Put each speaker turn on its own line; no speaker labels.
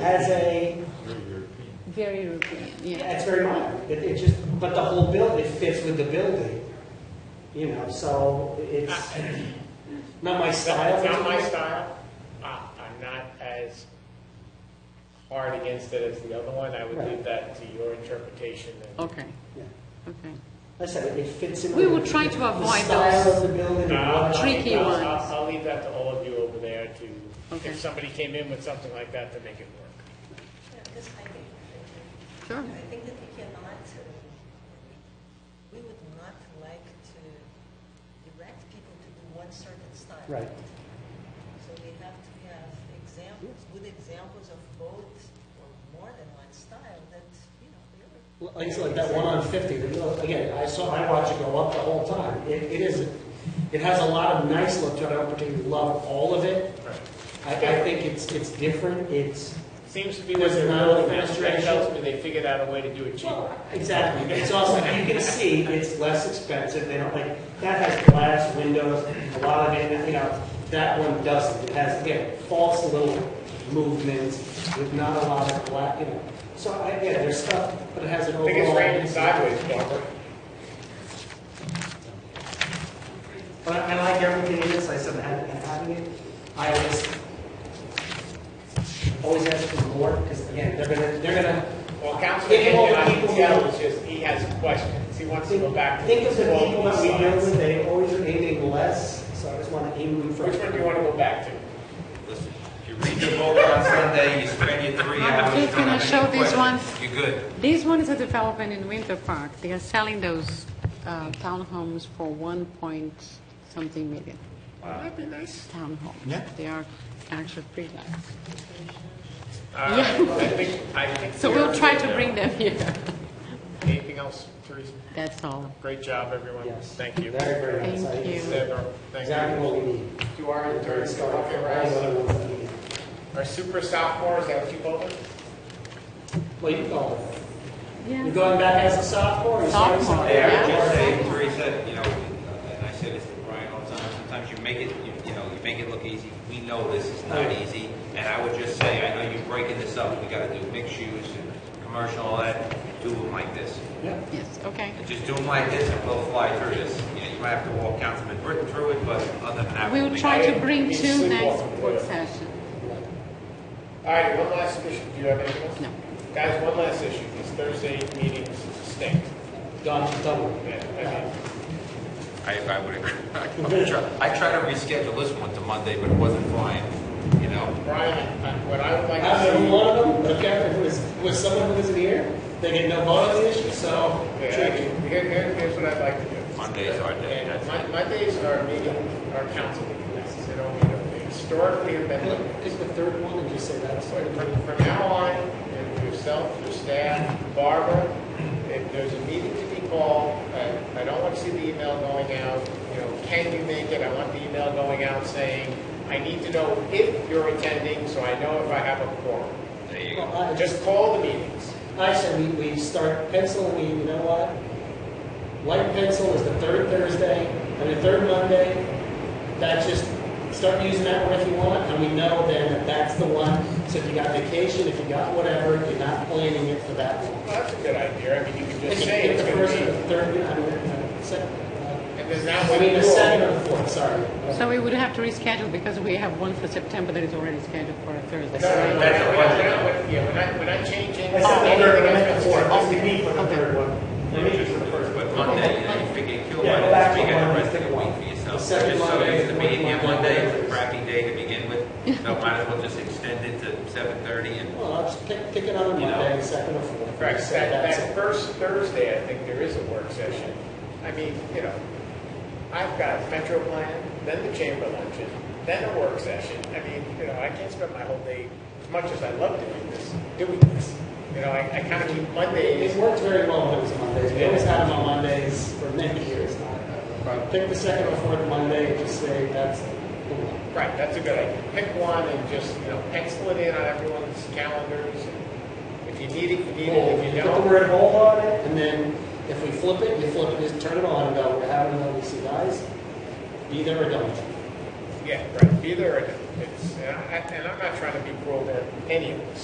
as a,
Very European.
Very European,
yeah,
yeah.
it's very minor. It, it just, but the whole build, it fits with the building, you know, so it's not my style.
It's not my style. I- I'm not as hard against it as the other one. I would leave that to your interpretation. and-
Okay,
Yeah.
okay.
I said, it fits in.
We
with
would try to avoid
The
those
style of the building. and
I'll- I'll-
what-
Tricky
uh, I'll-
ones.
I'll I'll leave that to all of you over there to,
Okay.
if somebody came in with something like that, to make it work.
Yeah, because I think,
Sure.
I think that we cannot, uh, we would not like to direct people to do one certain style.
Right.
So we have to have examples, good examples of both or more than one style that, you know,
Like
really.
I said, that one on 50, you know, again, I saw, I watch it go up the whole time. It, it is, it has a lot of nice look to it. I don't particularly love all of it. I, I think it's, it's different. It's,
Seems to be
There's
what they're
another
really fast. That
demonstration.
tells me they figured out a way to do it cheaper.
Exactly. It's also, you can see it's less expensive. They don't like, that has glass windows, a lot of it, you know, that one doesn't. It has, again, false little movements with not a lot of black, you know. So I, yeah, there's stuff, but it has an
I
overall.
think it's raining sideways, Barbara.
But I I like everything in this. I said, I and having it, I just always ask for more because again, they're gonna, they're gonna,
Well, Councilman
Think of all the
Hinchin, I can
people
tell,
who-
is just, he has questions. He wants to go back to.
Think of the
all
people that we
these
deal with,
slides.
they always are aiming less, so I just want to aim them for.
Which one do you want to go back to?
Listen, you read the book on Sunday, you spend your three
I'm
hours.
just gonna
trying to
show
make
these
questions.
ones.
You're good.
This one is a development in Winter Park. They are selling those uh, townhomes for one point something million.
That'd be nice.
Townhomes.
Yeah.
They are actually pretty nice.
All right, Uh, I think, I think.
So
we're
we'll try
good
to
now.
bring them here.
Anything else, Teresa?
That's all.
Great job, everyone.
Yes.
Thank you.
Very, very nice.
Thank
I-
you.
Deborah, Thank
Exactly
you.
what we need.
You are in third, so
Start with
okay,
all the
right?
other ones that we need.
Our super sophomores, that what you call them?
Well, you go, you're
Yeah.
oh. going back as a sophomore? you're starting
Sophomore,
Hey, I
Yeah.
would just say, Teresa, you know, and I say this to Brian all the time, sometimes you make it, you you know, you make it look easy. We know this is not easy, and I would just say, I know you're breaking this up, we gotta do mixed use and commercial, all that, do them like this.
Yeah.
Yes, okay.
And just do them like this, and we'll fly through this. You know, you might have to walk Councilman Britton through it, but other than that.
We will try to bring
We
two next
sleepwalk through it.
session.
All right, one last issue. Do you have anything else?
No.
Guys, one last issue. These Thursday meetings stink.
Dodge double.
Yeah, I mean,
I, I would agree. I try- I try to reschedule this one to Monday, but it wasn't flying, you know?
Brian, I- what I would like
I was
to
one of them, but if it was, was someone who wasn't here, they get no vote on the issue, so.
see, Yeah, I mean, here, here- here's what I'd like to do.
Mondays are dead.
And Mon- Mondays are meeting, our council meetings. They don't meet up. They Historically, have been Mondays.
Pick the third one and just say that's.
But From from now on, and yourself, your staff, Barbara, if there's a meeting to be called, I I don't want to see the email going out, you know, can you make it? I want the email going out saying, I need to know if you're attending, so I know if I have a quorum.
There you go.
Well, I just,
Just call the meetings.
I said, we, we start pencil, we, you know what? Light pencil is the third Thursday, and the third Monday, that just, start using that one if you want, and we know then that that's the one. So if you got vacation, if you got whatever, you're not planning it for that
Well,
one.
That's a good idea, I mean, you can
If
just
you
say
pick
it's
the
going
first or
to
the third, I mean, uh, second,
be,
uh,
and there's not
I
one
mean, the second or
rule.
the fourth, sorry.
So we would have to reschedule because we have one for September that is already scheduled for a Thursday.
No, no, no, we're
That's
not-
a
we're not-
budget.
we're not- yeah, we're not, we're not changing.
I said the third, I meant the fourth, just
anything.
to meet for the third one.
Maybe just the first, but Monday, you know, you figure, kill
Yeah,
one,
go back to
you get the
one,
rest of
pick
the week
one.
for
The
yourself.
second
Just so
Monday,
used to being here
fourth
one
Monday.
day, it's a crappy day to begin with, so might as well just extend it to seven thirty and
Well, I'll just pick, pick it on a
You know.
Monday, second or fourth.
Correct,
So
that,
that's
that
it.
first Thursday, I think there is a work session. I mean, you know, I've got Metro Plan, then the chamber luncheon, then a work session. I mean, you know, I can't spend my whole day, as much as I love doing this, doing this. You know, I, I kind of keep Mondays,
It worked very well when it was Mondays. We always had them on Mondays for many years. Pick the second or fourth Monday and just say that's the one.
right, that's a good idea. Pick one and just, you know, pencil it in on everyone's calendars. If you need it, you need it, if you
Put the
don't,
word whole on it, and then if we flip it, we flip it, just turn it on and go, we're having another one of these guys. Be there or don't.
yeah, right, be there or don't. It's, and I, and I'm not trying to be cruel to any of us.